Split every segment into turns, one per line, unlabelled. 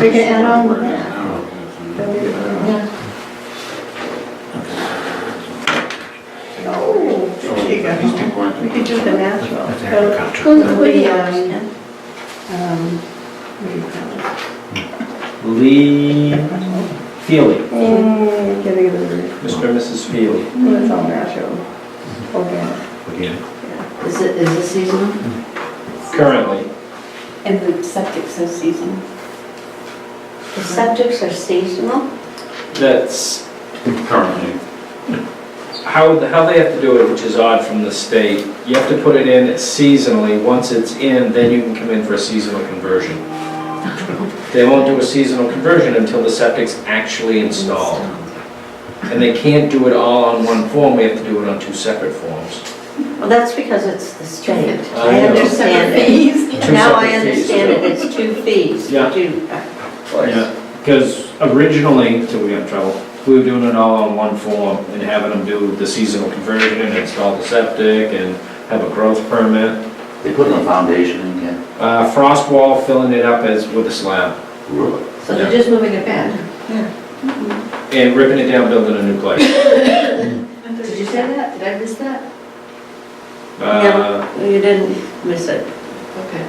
We can add on with that.
that.
Yeah. No, Oh, there you go. We could do the natural.
That's
Go
agriculture.
to the, um, um, what do you call it?
Lee Feely,
Mm, Get rid of it.
Mr. and Mrs. Feely.
Well, It's all natural, organic,
Organic.
yeah.
Is it, is it seasonal?
Currently,
And the septic says seasonal.
The subjects are seasonal?
that's
Currently,
how, how they have to do it, which is odd from the state. You have to put it in seasonally. Once it's in, then you can come in for a seasonal conversion. They won't do a seasonal conversion until the septic's actually installed. And they can't do it all on one form, we have to do it on two separate forms.
Well, that's because it's the state.
I
I
know.
understand it.
Two
Now I
separate fees,
understand it,
yeah.
it's two fees.
Yeah.
Two, uh, of course.
Because originally, until we got in trouble, we were doing it all on one form and having them do the seasonal conversion and install the septic and have a growth permit.
They put in a foundation in Ken.
Uh, Frost wall, filling it up as with a slab
Really?
So they're just moving it back.
and ripping it down, building a new place.
Did you say that? Did I miss that?
Uh,
No, you didn't miss it. Okay.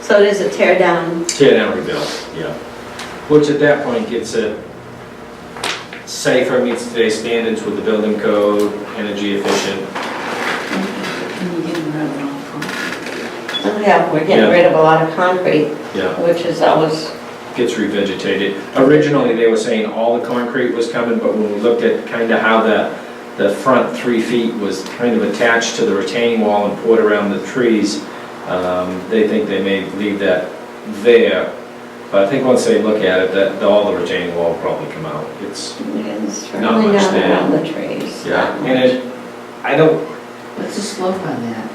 So it is a tear down.
Tear down, rebuild, yeah. Which at that point gets it safer, meets today's standards with the building code, energy efficient.
And you get them right along.
Yeah, we're getting
Yeah.
rid of a lot of concrete,
Yeah.
which is always,
gets revegetated. Originally, they were saying all the concrete was coming, but when we looked at kind of how the, the front three feet was kind of attached to the retaining wall and poured around the trees, um, they think they may leave that there. But I think once they look at it, that, all the retaining wall will probably come out. It's,
it's
Not
really
much
down
there.
around the trees.
yeah, and it, I don't,
What's the slope on that?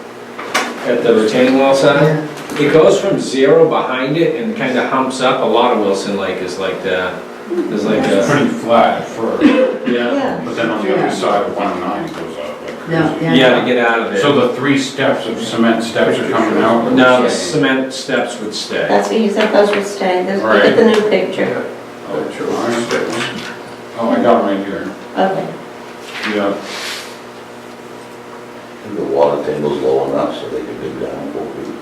at the retaining wall side, it goes from zero behind it and kind of humps up. A lot of Wilson Lake is like that. There's like
it's
a,
pretty flat at first,
yeah,
Yeah.
but then on the other side of 109 goes up like
No,
crazy.
yeah.
yeah, to get out of it.
So the three steps of cement steps are coming out? Oh,
No, the cement steps would stay.
That's what you said, those would stay, Those- look at the new picture.
Oh, sure. All right, steps. Oh, I got it right here.
Okay.
Yeah,
The water table's low enough so they can dig down four feet.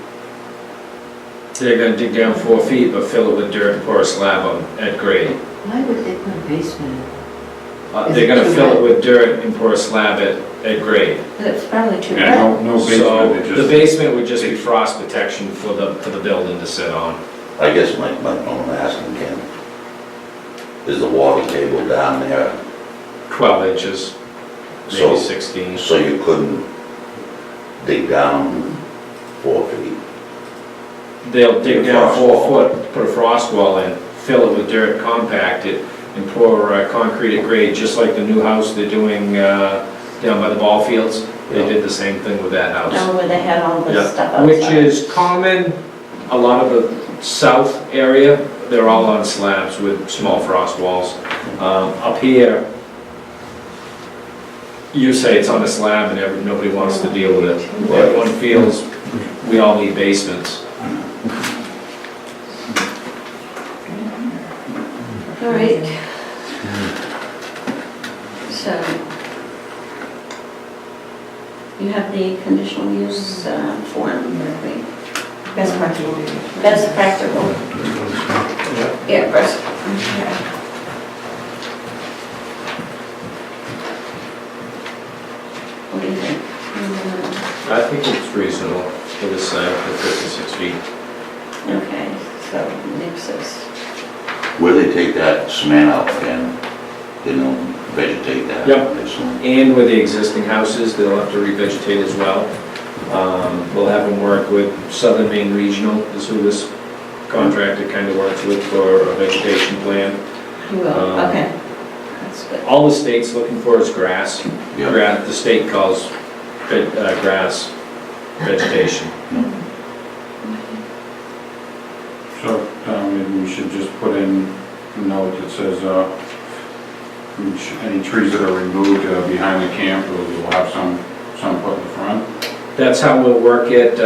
They're gonna dig down four feet, but fill it with dirt and pour a slab on at grade.
Why would they put a basement?
Uh, They're gonna fill it with dirt and pour a slab at, at grade.
It's probably too
yeah,
bad.
no, no
So
basement, it
the
just,
basement would just be frost protection for the, for the building to sit on.
I guess my, my, I'm asking Ken, is the water table down there
Twelve inches,
So-
maybe sixteen.
so you couldn't dig down four feet?
They'll dig
Put a
down
frost
four
wall.
foot, put a frost wall in, fill it with dirt, compact it, and pour uh, concrete at grade, just like the new house they're doing uh, down by the ball fields. They
Yeah.
did the same thing with that house.
Down where they had all
Yeah,
this stuff outside.
Which is common, a lot of the south area, they're all on slabs with small frost walls. Um, Up here, you say it's on a slab and every, nobody wants to deal with it. Everyone feels we all need basements.
All right.
Mm-hmm.
So you have the conditional use uh, form, I think.
Best practical.
Best practical. Yeah, best. What do you think?
Mm-hmm.
I think it's reasonable for the slab for 56 feet.
Okay, so nixes.
Where they take that cement out Ken, they don't vegetate that?
Yep.
It's-
And with the existing houses, they'll have to revegetate as well. Um, We'll have them work with Southern Maine Regional, is who this contractor kind of works with for a vegetation plan.
You will,
Um,
okay. That's good.
All the state's looking for is grass.
Yeah.
Grass, the state calls ve- uh, grass vegetation.
so, um, maybe we should just put in a note that says, uh, which- any trees that are removed uh, behind the camp, we'll we'll have some, some put in the front.
That's how we'll work it.